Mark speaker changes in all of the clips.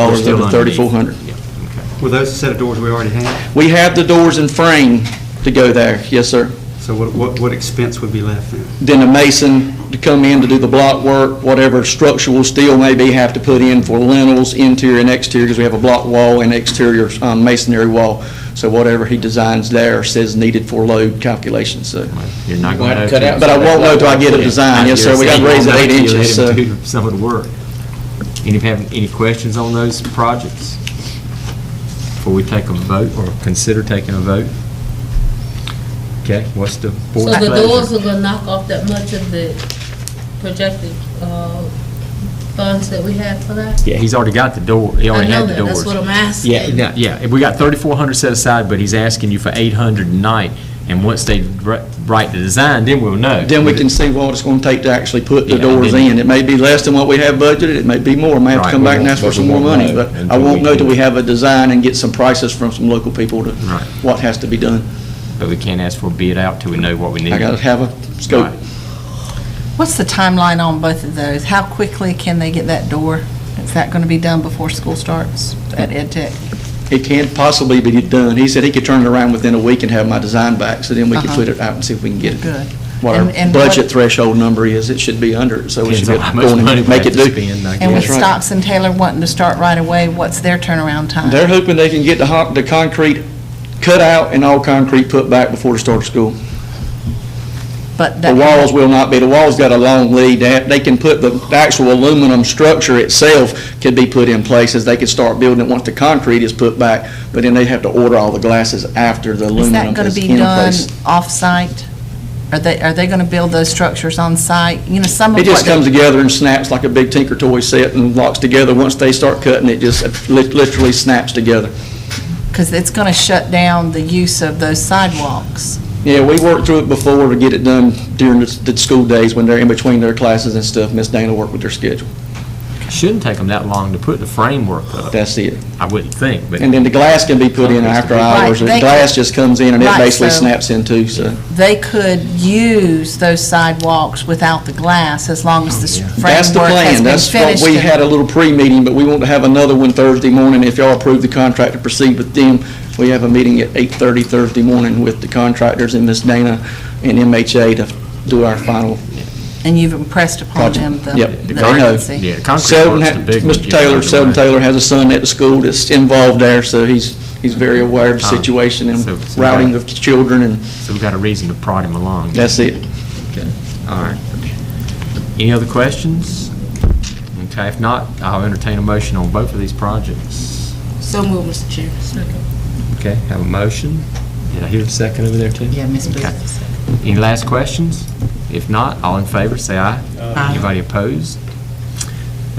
Speaker 1: dollars
Speaker 2: Still
Speaker 1: of the
Speaker 2: underneath.
Speaker 1: thirty-four hundred.
Speaker 2: Yeah, okay.
Speaker 3: Were those the set of doors we already had?
Speaker 1: We have the doors and frame to go there, yes, sir.
Speaker 3: So what, what, what expense would be left then?
Speaker 1: Then a mason to come in to do the block work, whatever structural steel may be, have to put in for lintels, interior and exterior, because we have a block wall and exterior um, masonry wall. So whatever he designs there says needed for load calculations, so.
Speaker 2: You're not
Speaker 4: We'll
Speaker 2: going
Speaker 4: have to
Speaker 2: to.
Speaker 4: cut out
Speaker 1: But I won't know till I get a design, yes, sir, we gotta raise it eight inches, so.
Speaker 2: Some of the work. Any, have, any questions on those projects? Before we take a vote or consider taking a vote? Okay, what's the
Speaker 5: So
Speaker 2: board's
Speaker 5: the
Speaker 2: pleasure?
Speaker 5: doors are gonna knock off that much of the projected, uh, funds that we had for that?
Speaker 2: Yeah, he's already got the door, he
Speaker 5: I
Speaker 2: already
Speaker 5: know
Speaker 2: had the
Speaker 5: that.
Speaker 2: doors.
Speaker 5: That's what I'm asking.
Speaker 2: Yeah, yeah, yeah, we got thirty-four hundred set aside, but he's asking you for eight hundred a night, and once they wri- write the design, then we'll know.
Speaker 1: Then we can see what it's gonna take to actually put the
Speaker 2: Yeah, I
Speaker 1: doors
Speaker 2: didn't-
Speaker 1: in. It may be less than what we have budgeted, it may be more, I may have to
Speaker 2: Right,
Speaker 1: come
Speaker 2: we
Speaker 1: back and
Speaker 4: won't-
Speaker 1: ask
Speaker 4: but
Speaker 1: for
Speaker 4: we
Speaker 1: some more
Speaker 4: won't
Speaker 1: money,
Speaker 4: know
Speaker 1: but I
Speaker 4: until
Speaker 1: won't
Speaker 4: we
Speaker 1: know
Speaker 4: do
Speaker 1: till we
Speaker 4: it.
Speaker 1: have a design and get some prices from some local people to
Speaker 2: Right.
Speaker 1: what has to be done.
Speaker 2: But we can't ask for a bid out till we know what we need.
Speaker 1: I gotta have a scope.
Speaker 2: Right.
Speaker 6: What's the timeline on both of those? How quickly can they get that door? Is that going to be done before school starts at Ed Tech?
Speaker 1: It can possibly be done. He said he could turn it around within a week and have my design back, so then we could
Speaker 6: Uh-huh.
Speaker 1: put it out and see if we can get it.
Speaker 6: Good.
Speaker 1: What
Speaker 6: And-
Speaker 1: our
Speaker 6: and what-
Speaker 1: budget threshold number is, it should be under, it, so we should
Speaker 2: Depends
Speaker 1: be able
Speaker 2: on how
Speaker 1: to
Speaker 2: much
Speaker 1: go in
Speaker 2: money
Speaker 1: and
Speaker 2: we have
Speaker 1: make it do.
Speaker 2: to spend, I
Speaker 6: And with
Speaker 1: That's
Speaker 2: guess.
Speaker 1: right.
Speaker 6: Stocks and Taylor wanting to start right away, what's their turnaround time?
Speaker 1: They're hoping they can get the hot, the concrete cut out and all concrete put back before the start of school.
Speaker 6: But
Speaker 1: The
Speaker 6: that-
Speaker 1: walls will not be, the walls got a long lead, they, have- they can put, the the actual aluminum structure itself could be put in places, they could start building it once the concrete is put back, but then they have to order all the glasses after the
Speaker 6: Is
Speaker 1: aluminum
Speaker 6: that going
Speaker 1: is
Speaker 6: to be
Speaker 1: in
Speaker 6: done
Speaker 1: place.
Speaker 6: off-site? Are they, are they going to build those structures on-site? You know, some of what...
Speaker 1: It just
Speaker 6: they-
Speaker 1: comes together and snaps like a big Tinker Toy set and locks together, once they start cutting, it just lit- literally snaps together.
Speaker 6: Because it's going to shut down the use of those sidewalks.
Speaker 1: Yeah, we worked through it before to get it done during the, the school days when they're in between their classes and stuff, Miss Dana worked with their schedule,
Speaker 2: Shouldn't take them that long to put the framework up,
Speaker 1: that's it.
Speaker 2: I wouldn't think, but.
Speaker 1: And then the glass can be put in after hours,
Speaker 6: Right,
Speaker 1: the
Speaker 6: they-
Speaker 1: glass just comes in and it
Speaker 6: Right,
Speaker 1: basically
Speaker 6: so-
Speaker 1: snaps in two, so.
Speaker 6: They could use those sidewalks without the glass as long as this framework
Speaker 1: Oh, That's
Speaker 6: has
Speaker 1: the
Speaker 6: been finished.
Speaker 1: plan, that's what we
Speaker 6: and-
Speaker 1: had a little pre-meeting, but we want to have another one Thursday morning, if y'all approve the contract to proceed with them. We have a meeting at eight-thirty Thursday morning with the contractors and Miss Dana and MHA to do our final
Speaker 6: And you've impressed upon
Speaker 1: project.
Speaker 6: them the
Speaker 1: Yep,
Speaker 6: the
Speaker 1: they know.
Speaker 6: urgency.
Speaker 2: Yeah, the concrete
Speaker 1: Sheldon,
Speaker 2: work's
Speaker 1: ha-
Speaker 2: the big one.
Speaker 1: Mr. Taylor, Sheldon Taylor has a son at the school that's involved there, so he's, he's very aware of the
Speaker 2: Ah,
Speaker 1: situation and
Speaker 2: so- so
Speaker 1: routing
Speaker 2: that-
Speaker 1: of children, and
Speaker 2: So we've got a reason to prod him along.
Speaker 1: that's it.
Speaker 2: Okay, all right. Any other questions? Okay, if not, I'll entertain a motion on both of these projects.
Speaker 5: So move, Mr. Chair.
Speaker 2: Okay, have a motion. Did I hear a second over there, too?
Speaker 6: Yeah, Ms.
Speaker 2: Okay.
Speaker 6: Booth.
Speaker 2: Any last questions? If not, all in favor, say aye.
Speaker 6: Aye.
Speaker 2: Anybody opposed?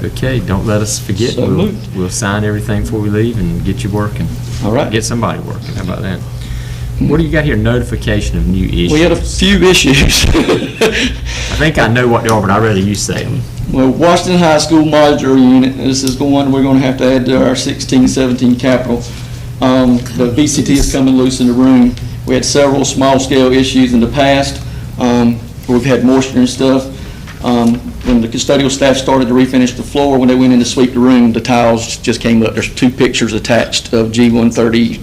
Speaker 2: Okay, don't let us forget.
Speaker 1: So
Speaker 2: We'll,
Speaker 1: moved.
Speaker 2: we'll sign everything before we leave and get you working.
Speaker 1: All right.
Speaker 2: Get somebody working, how about that? What do you got here, notification of new issues?
Speaker 1: We had a few issues.
Speaker 2: I think I know what they are, but I'd rather you say them.
Speaker 1: Well, Washington High School modular unit, this is the one we're gonna have to add to our sixteen, seventeen capital. Um, the VCT is coming loose in the room. We had several small-scale issues in the past. Um, we've had moisture and stuff. Um, when the custodial staff started to refinish the floor, when they went in to sweep the room, the tiles just came up. There's two pictures attached of G one thirty,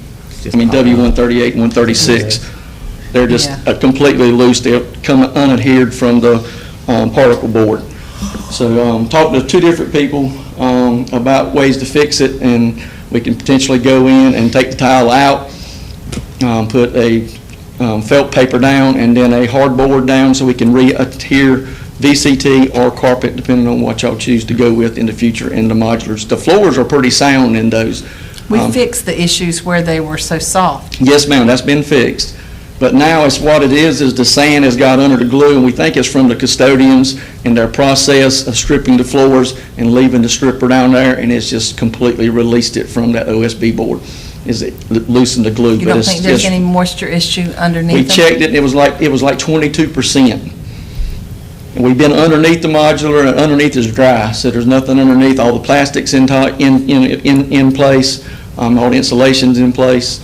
Speaker 1: I mean, W one thirty-eight and one thirty-six. They're just
Speaker 6: Yeah.
Speaker 1: uh, completely loose. They've come unadhered from the, um, particle board. So, um, talked to two different people, um, about ways to fix it, and we can potentially go in and take the tile out, um, put a, um, felt paper down and then a hardboard down so we can re-adhere VCT or carpet, depending on what y'all choose to go with in the future in the modulars. The floors are pretty sound in those.
Speaker 6: We
Speaker 1: Um,
Speaker 6: fixed the issues where they were so soft.
Speaker 1: Yes, ma'am, that's been fixed. But now it's what it is, is the sand has got under the glue, and we think it's from the custodians and their process of stripping the floors and leaving the stripper down there, and it's just completely released it from that OSB board, is it lo- loosened the glue.
Speaker 6: You
Speaker 1: but
Speaker 6: don't
Speaker 1: it's
Speaker 6: think there's
Speaker 1: just-
Speaker 6: any moisture issue underneath
Speaker 1: We
Speaker 6: them?
Speaker 1: checked it, and it was like, it was like twenty-two percent. And we've been underneath the modular, and underneath is dry, so there's nothing underneath, all the plastics in, ti- in, in, in- in place, um, all the insulation's in place,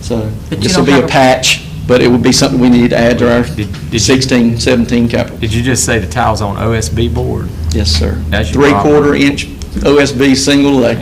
Speaker 1: so
Speaker 6: But you
Speaker 1: this will
Speaker 6: don't
Speaker 1: be a
Speaker 6: have a-
Speaker 1: patch, but it would be something we need to add to our
Speaker 2: Did- did you-
Speaker 1: 16, 17 capital.
Speaker 2: Did you just say the tile's on OSB board?
Speaker 1: Yes, sir.
Speaker 2: That's your problem.
Speaker 1: Three-quarter inch OSB single lay.